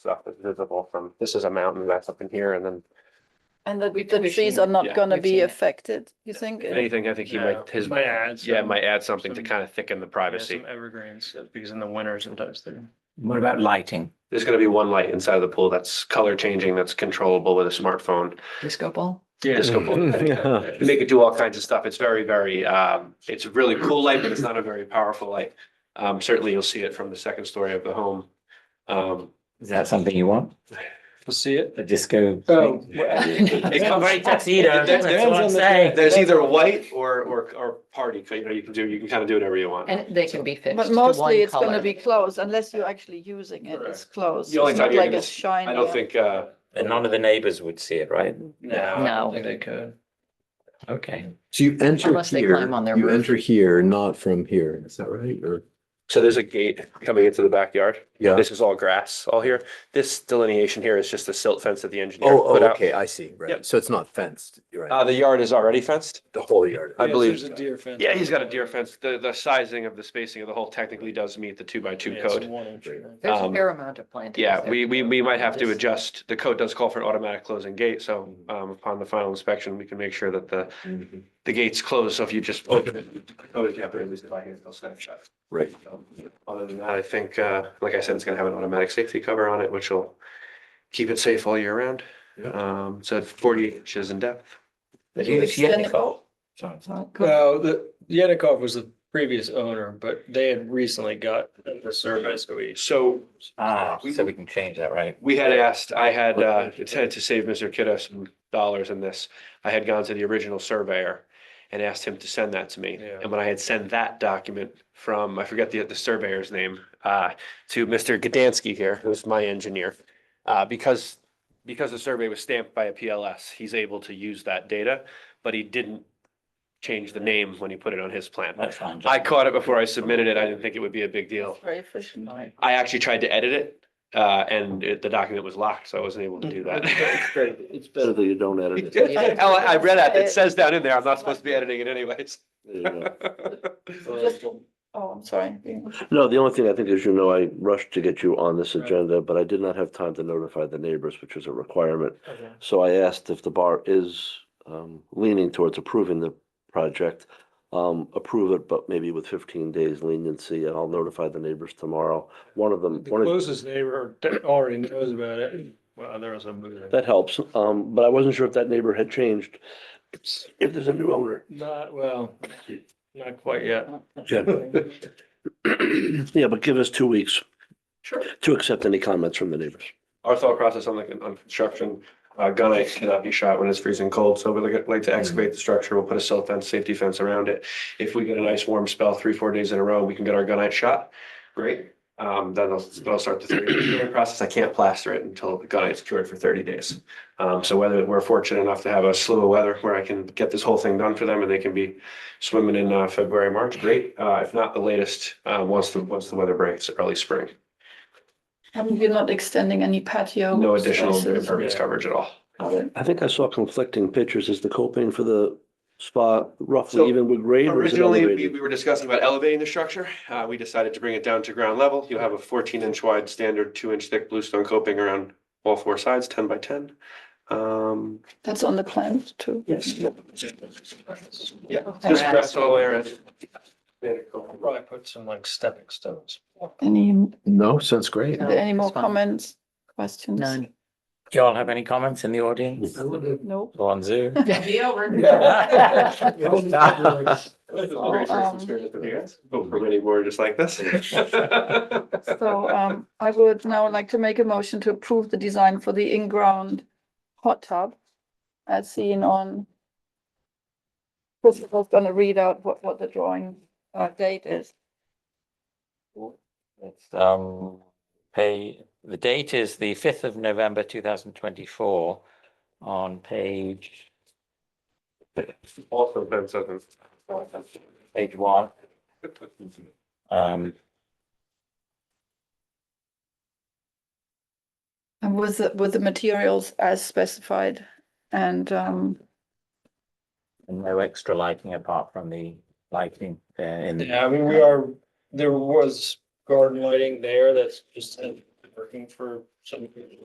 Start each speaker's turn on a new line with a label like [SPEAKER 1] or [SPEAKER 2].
[SPEAKER 1] stuff that's visible from, this is a mountain that's up in here and then
[SPEAKER 2] And that
[SPEAKER 3] We-
[SPEAKER 2] the
[SPEAKER 3] we've
[SPEAKER 2] trees
[SPEAKER 3] seen
[SPEAKER 2] are
[SPEAKER 3] it.
[SPEAKER 2] not
[SPEAKER 1] Yeah,
[SPEAKER 2] gonna
[SPEAKER 3] we've
[SPEAKER 2] be
[SPEAKER 3] seen it.
[SPEAKER 2] affected, you think?
[SPEAKER 1] if anything, I think he
[SPEAKER 3] No,
[SPEAKER 1] might, his.
[SPEAKER 3] might add
[SPEAKER 1] Yeah,
[SPEAKER 3] some-
[SPEAKER 1] might add something to
[SPEAKER 3] some-
[SPEAKER 1] kind of thicken the
[SPEAKER 3] Yeah,
[SPEAKER 1] privacy.
[SPEAKER 3] some evergreens, because in the winter sometimes they're.
[SPEAKER 4] What about lighting?
[SPEAKER 1] There's gonna be one light inside of the pool that's color changing, that's controllable with a smartphone.
[SPEAKER 4] Disco ball?
[SPEAKER 1] Disco ball. They could do all kinds of stuff. It's very, very, um, it's a really cool light, but it's not a very powerful light. Um, certainly you'll see it from the second story of the home. Um,
[SPEAKER 4] Is that something you want?
[SPEAKER 3] We'll see it.
[SPEAKER 4] A disco?
[SPEAKER 3] Oh.
[SPEAKER 1] It comes-
[SPEAKER 4] Very tuxedo,
[SPEAKER 1] It
[SPEAKER 4] that's what I'm
[SPEAKER 1] depends
[SPEAKER 4] saying.
[SPEAKER 1] There's either a white or, or, or party, you know, you can do, you can kind of do whatever you want.
[SPEAKER 5] And they can be fixed.
[SPEAKER 2] But
[SPEAKER 5] to one
[SPEAKER 2] mostly it's
[SPEAKER 5] colour.
[SPEAKER 2] gonna be closed unless you're actually using it, it's closed.
[SPEAKER 1] The only
[SPEAKER 2] It's
[SPEAKER 1] time
[SPEAKER 2] not
[SPEAKER 1] you're
[SPEAKER 2] like
[SPEAKER 1] gonna
[SPEAKER 2] it's
[SPEAKER 1] s-
[SPEAKER 2] shiny.
[SPEAKER 1] I don't think, uh,
[SPEAKER 4] And none of the neighbors would see it, right?
[SPEAKER 3] No. I
[SPEAKER 5] No.
[SPEAKER 3] think they could.
[SPEAKER 4] Okay.
[SPEAKER 6] So you enter
[SPEAKER 5] Unless they climb
[SPEAKER 6] here,
[SPEAKER 5] on their
[SPEAKER 6] you
[SPEAKER 5] roof.
[SPEAKER 6] enter here, not from here, is that right? Or,
[SPEAKER 1] so there's a gate coming into the backyard.
[SPEAKER 6] yeah.
[SPEAKER 1] This is all grass, all here. This delineation here is just the silt fence that the engineer
[SPEAKER 6] Oh,
[SPEAKER 1] put
[SPEAKER 6] oh,
[SPEAKER 1] out.
[SPEAKER 6] okay, I see, right.
[SPEAKER 1] Yep.
[SPEAKER 6] So it's not fenced, you're
[SPEAKER 1] Uh,
[SPEAKER 6] right,
[SPEAKER 1] the yard is already fenced?
[SPEAKER 6] the whole yard.
[SPEAKER 1] I
[SPEAKER 3] Yes,
[SPEAKER 1] believe-
[SPEAKER 3] There's a deer fence.
[SPEAKER 1] Yeah, he's got a deer fence. The, the sizing of the spacing of the hole technically does meet the two by two
[SPEAKER 3] Yeah, it's
[SPEAKER 1] code.
[SPEAKER 3] one inch, right?
[SPEAKER 5] There's a
[SPEAKER 1] um,
[SPEAKER 5] fair amount of planting.
[SPEAKER 1] Yeah, we, we, we might have to adjust. The code does call for an automatic closing gate, so, um, upon the final inspection, we can make sure that the,
[SPEAKER 6] Mhm.
[SPEAKER 1] the gate's closed, so if you just open it. Oh, yeah, but at least if I hit, they'll snap shut.
[SPEAKER 6] Right.
[SPEAKER 1] So, Other than that, I think, uh, like I said, it's gonna have an automatic safety cover on it, which will keep it safe all year round.
[SPEAKER 6] Yeah.
[SPEAKER 1] Um, so it's forty inches in depth.
[SPEAKER 4] But he was Yenikov.
[SPEAKER 3] Well, the Yanikov was the previous owner, but they had recently got the survey, so we.
[SPEAKER 1] So
[SPEAKER 4] Ah, so we can change that, right?
[SPEAKER 1] we had asked, I had, uh, intended to save Mr. Kidda some dollars in this. I had gone to the original surveyor and asked him to send that to me.
[SPEAKER 3] Yeah.
[SPEAKER 1] And when I had sent that document from, I forget the, the surveyor's name, uh, to Mr. Gdansky here, who's my engineer. Uh, because, because the survey was stamped by a PLS, he's able to use that data, but he didn't change the name when he put it on his plan.
[SPEAKER 4] That's fine.
[SPEAKER 1] I caught it before I submitted it. I didn't think it would be a big deal.
[SPEAKER 2] Very efficient.
[SPEAKER 1] I actually tried to edit it, uh, and it, the document was locked, so I wasn't able to do that.
[SPEAKER 6] It's better that you don't edit
[SPEAKER 1] Oh, I I read it. It says down in there, I'm not supposed to be editing it anyways.
[SPEAKER 2] Just- Oh, I'm sorry.
[SPEAKER 7] No, the only thing I think, as you know, I rushed to get you on this agenda, but I did not have time to notify the neighbors, which is a requirement. So I asked if the bar is um, leaning towards approving the project, um, approve it, but maybe with fifteen days leniency, and I'll notify the neighbors tomorrow. One of them,
[SPEAKER 3] The
[SPEAKER 7] one of,
[SPEAKER 3] closest neighbor already knows about it. Well, there was a move.
[SPEAKER 7] that helps, um, but I wasn't sure if that neighbor had changed, if there's a new owner.
[SPEAKER 3] Not, well, not quite yet.
[SPEAKER 7] Yeah, but give us two weeks
[SPEAKER 1] Sure.
[SPEAKER 7] to accept any comments from the neighbors.
[SPEAKER 1] Our thought process on the, on construction, uh, gunite cannot be shot when it's freezing cold, so we'd like- like to excavate the structure, we'll put a silt fence, safety fence around it. If we get a nice warm spell, three, four days in a row, we can get our gunite shot, great. Um, then I'll, then I'll start the three-year process, I can't plaster it until the gunite's cured for thirty days. Um, so whether we're fortunate enough to have a slew of weather where I can get this whole thing done for them and they can be swimming in, uh, February, March, great. Uh, if not, the latest, uh, once the, once the weather breaks, early spring.
[SPEAKER 2] Um, You're not extending any patio.
[SPEAKER 1] No additional
[SPEAKER 2] spaces.
[SPEAKER 1] impervious coverage at all.
[SPEAKER 2] Got it.
[SPEAKER 7] I think I saw conflicting pictures. Is the coping for the spa
[SPEAKER 1] So,
[SPEAKER 7] roughly even with grade or is it
[SPEAKER 1] Originally, we,
[SPEAKER 7] elevated?
[SPEAKER 1] we were discussing about elevating the structure. Uh, we decided to bring it down to ground level. You have a fourteen inch wide standard, two inch thick bluestone coping around all four sides, ten by ten. Um,
[SPEAKER 2] That's on the plan too.
[SPEAKER 1] yes. Yeah,
[SPEAKER 2] Okay.
[SPEAKER 1] just rest all the way around.
[SPEAKER 3] Probably put some like stepping stones.
[SPEAKER 2] Any,
[SPEAKER 6] No, sounds great.
[SPEAKER 5] No,
[SPEAKER 2] any more
[SPEAKER 5] it's fine.
[SPEAKER 2] comments, questions?
[SPEAKER 5] None.
[SPEAKER 4] Do you all have any comments in the audience?
[SPEAKER 2] Nope.
[SPEAKER 4] Or on Zoom?
[SPEAKER 2] um,
[SPEAKER 1] Hope Oh, for many more just like this.
[SPEAKER 2] So um, I would now like to make a motion to approve the design for the in-ground hot tub as seen on. Christopher's gonna read out what, what the drawing uh, date is.
[SPEAKER 4] It's, um, pay, the date is the fifth of November, two thousand twenty-four on page,
[SPEAKER 1] Also, Ben doesn't.
[SPEAKER 4] page one. Um,
[SPEAKER 2] And with, the- with the materials as specified and um,
[SPEAKER 4] and no extra lighting apart from the lighting uh, in the
[SPEAKER 3] Yeah, I mean, we are, there was garden lighting there that's just. working for some